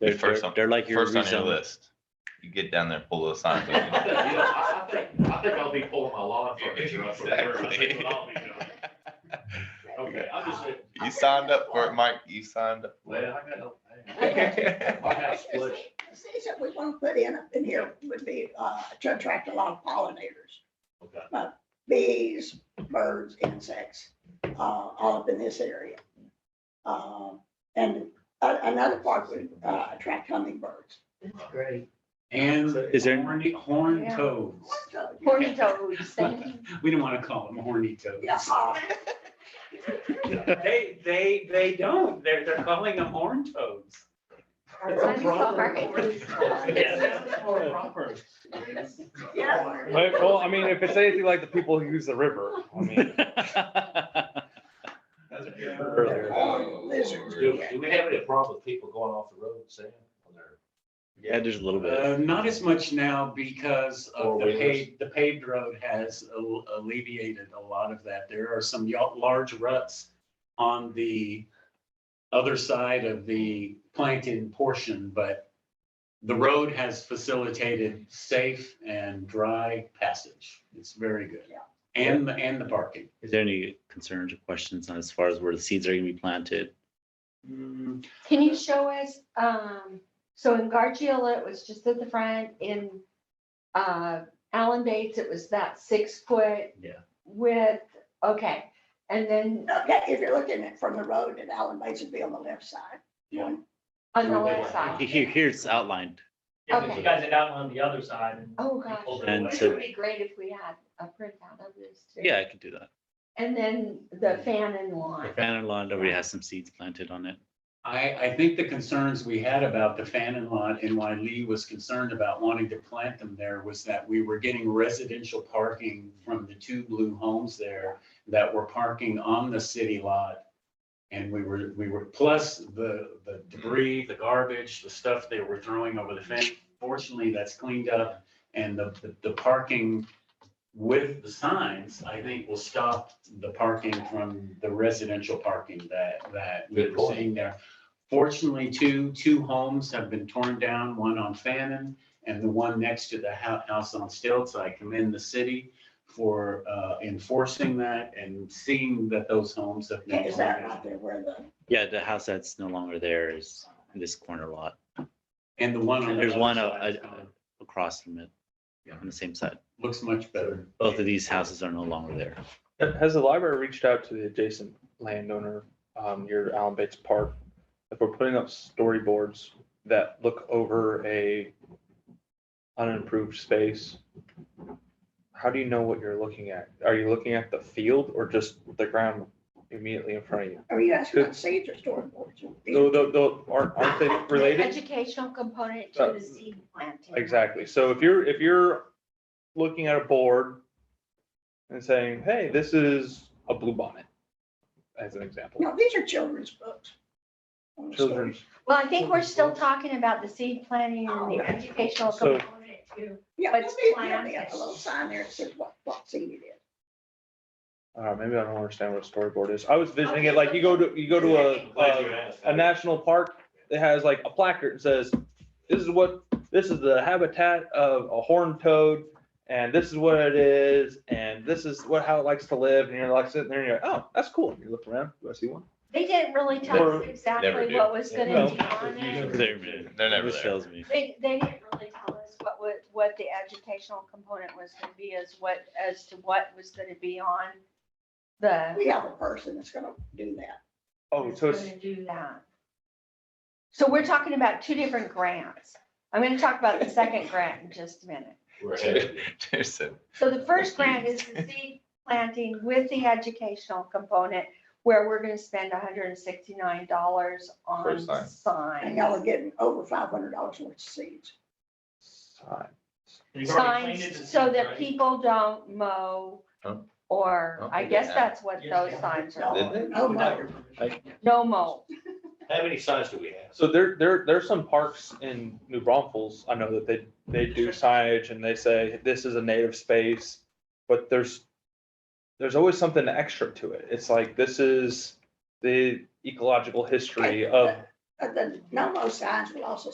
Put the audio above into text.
They're, First they're, on- they're like your First on your rezone. list. You get down there, pull those signs. You know, up. I I think, I think I'll be pulling my lawn furniture up. for her. I think Exactly. what I'll be doing. Okay, I'm just saying, You signed up for it, Mike. You signed up. for well, I got no. it. I got a splish. The Things that we want to put in, in here would be, uh, to attract a lot of pollinators, Uh, Okay. bees, birds, insects, uh, all up in this area. Um, and a- another part would, uh, attract hummingbirds. That's great. And Is there- horny, horned toads. So, Horny toads, thank you. We didn't want to call them horny toads. Yeah, uh, They, they, they don't. They're, they're calling them horned toads. That's right. Yes, that's more proper. yeah. Well, well, I mean, if it's anything like the people who use the river, I mean, earlier. Uh, Lizards, Do, yeah. do we have any problem with people going off the road, Sam? on their- Yeah, just a little bit. Uh, Not as much now because of the Four-wheelers. paved, the paved road has al- alleviated a lot of that. There are some ya- large ruts on the other side of the planted portion, but the road has facilitated safe and dry passage. It's very good. Yeah. And, the- and the parking. Is there any concerns or questions on as far as where the seeds are gonna be planted? Mm, Can you show us, um, so in Gargiola, it was just at the front, in, uh, Allen Bates, it was that six foot. Yeah. Width, okay, and then Okay, if you're looking at from the road at Allen Bates, it'd be on the left side. Yeah. on the left side, Here, here's outlined. Yeah, but Okay. you guys had outlined the other side and. oh gosh. pulled it And away. It so- would be great if we had a printout of this too. Yeah, I could do that. And then the fan and lawn, Fannin Lawn already has some seeds planted on it. I, I think the concerns we had about the Fannin lot and why Lee was concerned about wanting to plant them there was that we were getting residential parking from the two blue homes there that were parking on the city lot. And we were, we were, plus the, the debris, the garbage, the stuff they were throwing over the fence. Fortunately, that's cleaned up and the, the- the parking with the signs, I think will stop the parking from the residential parking that, that we Good were point. seeing there. Fortunately, two, two homes have been torn down, one on Fannin and the one next to the hou- house on Stilts. I commend the city for uh, enforcing that and seeing that those homes have been Is torn that down. right there where the, Yeah, the house that's no longer there is this corner lot And the one on. the There's other one, uh, side is uh, gone. across from it, Yeah. on the same side. Looks much better. Both of these houses are no longer there. Has the library reached out to the adjacent landowner, um, your Allen Bates Park? If we're putting up storyboards that look over a unimproved space, how do you know what you're looking at? Are you looking at the field or just the ground immediately in front of you? are you asking about seeds or storyboards? Though, though, though, aren't, aren't they related? educational component to the seed planting. Exactly. So if you're, if you're looking at a board and saying, hey, this is a blue bonnet, as an example, No, these are children's books. On the story. children's, Well, I think we're still talking about the seed planting and the educational So- component too. Yeah, But there'll it's be- there'll be a planted. little sign there that says what, what seed it is. uh, maybe I don't understand what a storyboard is. I was visioning it like you go to, you go to a, Glad you a, asked. a national park that has like a placard that says, this is what, this is the habitat of a horned toad, and this is what it is, and this is what, how it likes to live, and you're like sitting there and you're like, oh, that's cool. And You look around, do I see one? They didn't really tell us Never- never exactly do. what was No. gonna be Never. on it. They're never They're never Which there. tells me. They, they didn't really tell us what, what, what the educational component was gonna be as what, as to what was gonna be on the. We have a person that's gonna do that. Oh, so it's, gonna Do that. So we're talking about two different grants. I'm gonna talk about the second grant in just a minute. We're ahead. There's a- So the first grant is the seed planting with the educational component where we're gonna spend hundred and sixty-nine dollars For on signs. And y'all are signs. getting over five hundred dollars worth of seeds. You've already planted the Signs so seed, that right? people don't mow Huh? or Don't I they guess have- that's what Yes, those they have. signs No, are. Did they? no mower. No mow. How many signs do we have? So there, there, there's some parks in New Braunfels, I know that they, they do signage and they say, this is a native space, but there's, there's always something extra to it. It's like, this is the ecological history of But the Uh, no mow signs will also